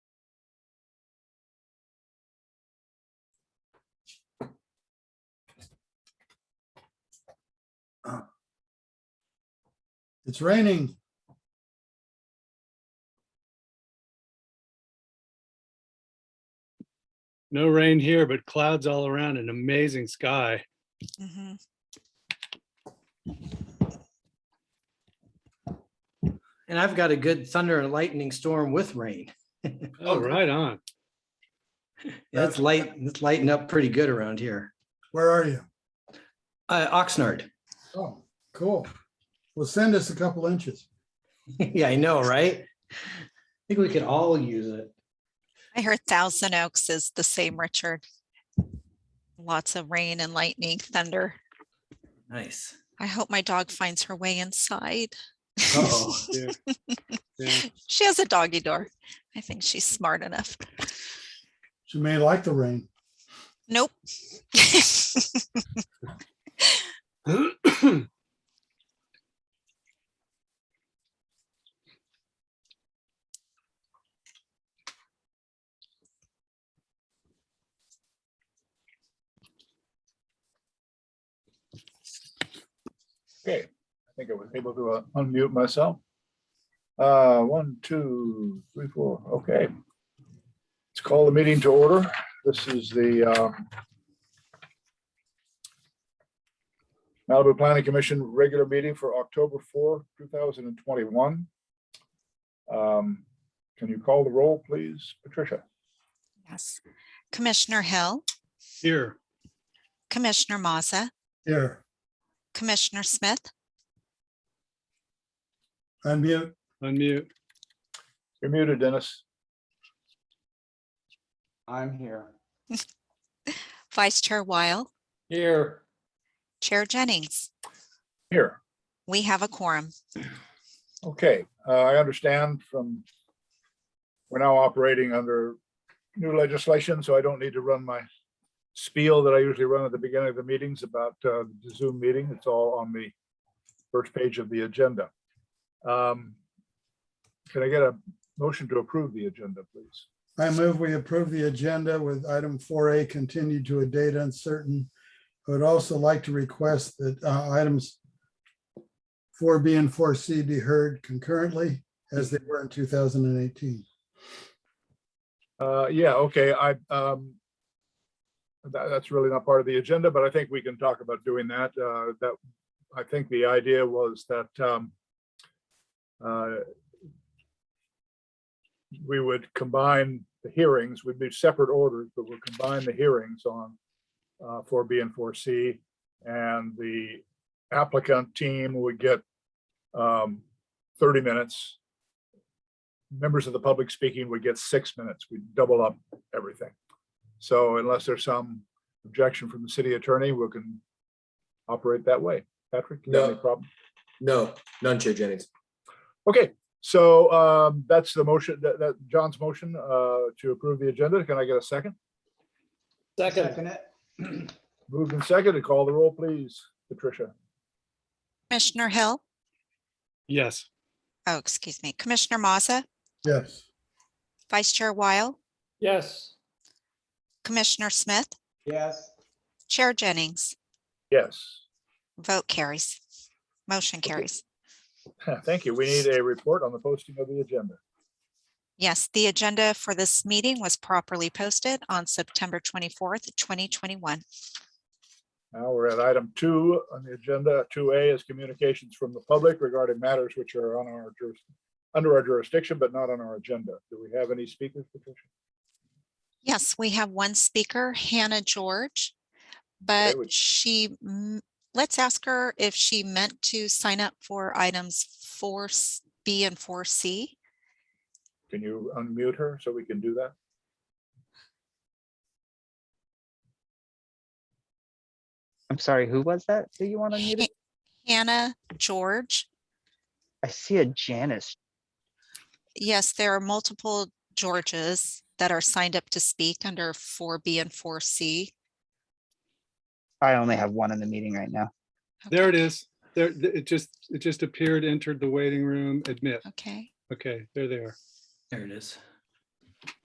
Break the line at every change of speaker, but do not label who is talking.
It's raining.
No rain here, but clouds all around, an amazing sky.
Mhm.
And I've got a good thunder and lightning storm with rain.
Oh, right on.
That's light, it's lighting up pretty good around here.
Where are you?
Uh, Oxnard.
Oh, cool. Well, send us a couple inches.
Yeah, I know, right? I think we could all use it.
I heard Thousand Oaks is the same, Richard. Lots of rain and lightning, thunder.
Nice.
I hope my dog finds her way inside.
Uh-oh.
Yeah.
She has a doggy door. I think she's smart enough.
She may like the rain.
Nope.
Okay, I think I was able to uh, unmute myself. Uh, one, two, three, four, okay. Let's call the meeting to order. This is the um, Malibu Planning Commission regular meeting for October 4, 2021. Um, Can you call the roll, please, Patricia?
Yes. Commissioner Hill,
Here,
Commissioner Maza,
Here,
Commissioner Smith,
unmute.
unmute.
You're muted, Dennis.
I'm here.
Vice Chair Weil,
Here.
Chair Jennings.
Here.
We have a quorum.
Okay, uh, I understand from, we're now operating under new legislation, so I don't need to run my spiel that I usually run at the beginning of the meetings about uh, the Zoom meeting. It's all on the first page of the agenda. Um, Can I get a motion to approve the agenda, please?
I move we approve the agenda with item four A continued to a date uncertain. I would also like to request that uh, items four B and four C be heard concurrently as they were in two thousand and eighteen.
Uh, yeah, okay, I, um, that, that's really not part of the agenda, but I think we can talk about doing that. Uh, that, I think the idea was that, um, uh, we would combine the hearings, we'd do separate orders, but we'll combine the hearings on, uh, four B and four C. And the applicant team would get, um, thirty minutes members of the public speaking would get six minutes. We double up everything. So unless there's some objection from the city attorney, we can operate that way. Patrick, you have any
No.
problem?
No, none, Chair Jennings.
Okay, so um, that's the motion, that, that, John's motion uh, to approve the agenda. Can I get a second?
Second.
Moved and seconded. Call the roll, please. Patricia.
Commissioner Hill,
Yes,
oh, excuse me, Commissioner Maza,
Yes,
Vice Chair Weil,
Yes.
Commissioner Smith,
Yes.
Chair Jennings.
Yes.
Vote carries. Motion carries.
Thank you. We need a report on the posting of the agenda.
Yes, the agenda for this meeting was properly posted on September twenty-fourth, twenty twenty-one.
Now we're at item two on the agenda. Two A is communications from the public regarding matters which are on our juris, under our jurisdiction, but not on our agenda. Do we have any speakers? Patricia?
Yes, we have one speaker, Hannah George. But
would-
she, m- let's ask her if she meant to sign up for items four B and four C.
Can you unmute her so we can do that?
I'm sorry, who was that? that you want to mute?
Hannah George.
I see a Janice.
Yes, there are multiple Georges that are signed up to speak under four B and four C.
I only have one in the meeting right now.
there it is. There, th- it just, it just appeared, entered the waiting room, admit.
Okay.
Okay, there they are.
There it is.